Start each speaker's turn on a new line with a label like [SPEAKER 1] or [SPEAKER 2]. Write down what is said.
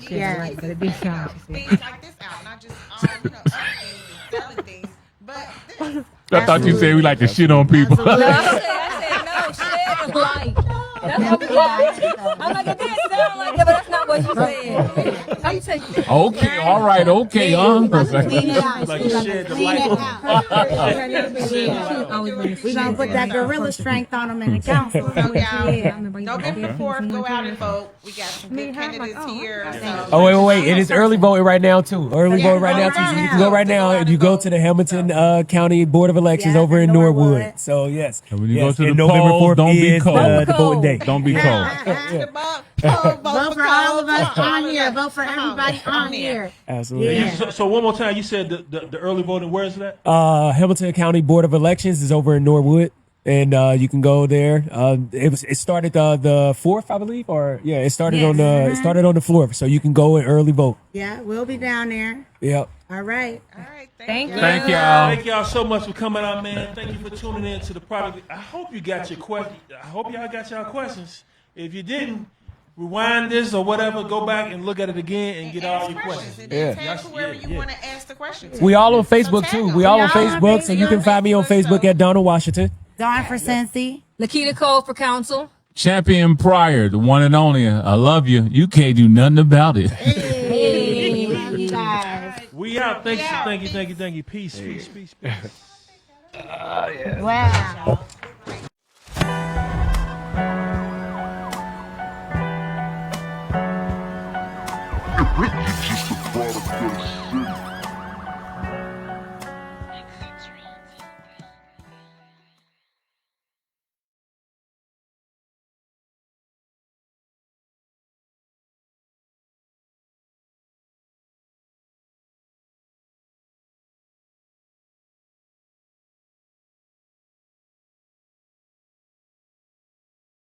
[SPEAKER 1] She yeah. like the
[SPEAKER 2] you
[SPEAKER 1] dish
[SPEAKER 2] know,
[SPEAKER 1] out. She said.
[SPEAKER 2] things like this out, not just all you know, other things and selling things, but this.
[SPEAKER 3] I thought you said we like to shit on people.
[SPEAKER 4] No, I said, I said, no, she didn't like. That's what we like. I'm like, it didn't sound like that, but that's not what you said. I'm taking it.
[SPEAKER 3] okay, all right, okay, um.
[SPEAKER 5] Like shed the light
[SPEAKER 1] We gonna put that gorilla strength on them in the council.
[SPEAKER 2] So
[SPEAKER 1] Yeah.
[SPEAKER 2] y'all, November fourth, go out and vote. We got some good candidates here. so-
[SPEAKER 6] Oh wait, wait, wait! It is early voting right now too. Early voting right now too. So you can go right now and you go to the Hamilton uh, County Board of Elections
[SPEAKER 1] Yeah,
[SPEAKER 6] over in
[SPEAKER 1] Norwood.
[SPEAKER 6] Norwood. So yes,
[SPEAKER 3] And when you
[SPEAKER 6] Yes,
[SPEAKER 3] go to
[SPEAKER 6] and
[SPEAKER 3] the polls, don't be
[SPEAKER 6] is,
[SPEAKER 3] cold.
[SPEAKER 6] uh, the voting day.
[SPEAKER 3] Don't be cold.
[SPEAKER 2] Yeah, ask the vote, vote
[SPEAKER 1] Vote for all of us
[SPEAKER 2] Cole,
[SPEAKER 1] on
[SPEAKER 2] vote
[SPEAKER 1] here.
[SPEAKER 2] for
[SPEAKER 1] Vote for
[SPEAKER 2] Cole,
[SPEAKER 1] everybody on here.
[SPEAKER 6] Absolutely.
[SPEAKER 1] Yeah.
[SPEAKER 5] You- So, so one more time, you said the, the, the early voting. Where is that?
[SPEAKER 6] Uh, Hamilton County Board of Elections is over in Norwood, and uh, you can go there. Uh, it was it started uh, the fourth, I believe, or yeah, it started
[SPEAKER 1] Yes.
[SPEAKER 6] on the it started on the fourth. So you can go and early vote.
[SPEAKER 1] Yeah, we'll be down there.
[SPEAKER 6] Yep.
[SPEAKER 1] All right.
[SPEAKER 2] All right, thank
[SPEAKER 4] Thank
[SPEAKER 2] you.
[SPEAKER 4] you.
[SPEAKER 3] Thank y'all.
[SPEAKER 5] Thank y'all so much for coming out, man. Thank you for tuning in to the product. I hope you got your question. I hope y'all got y'all questions. If you didn't, rewind this or whatever. Go back and look at it again and get all
[SPEAKER 2] Ask
[SPEAKER 5] your
[SPEAKER 2] questions
[SPEAKER 5] questions.
[SPEAKER 2] and then tag
[SPEAKER 5] Yes,
[SPEAKER 2] whoever
[SPEAKER 5] yeah,
[SPEAKER 2] you
[SPEAKER 5] yeah.
[SPEAKER 2] want to ask the question to.
[SPEAKER 6] We all on Facebook too. We all on Facebook, so you can find me on Facebook at Donald Washington.
[SPEAKER 1] Gone for Cincy.
[SPEAKER 4] Lakita Cole for council.
[SPEAKER 3] Champion Pryor, the one and only. I love you. You can't do nothing about it.
[SPEAKER 1] Hey, love you guys.
[SPEAKER 5] We out. Thank you,
[SPEAKER 2] out.
[SPEAKER 5] thank you, thank you, thank you. Peace, peace, peace, peace.
[SPEAKER 1] Wow.
[SPEAKER 7] You're just a product of the city.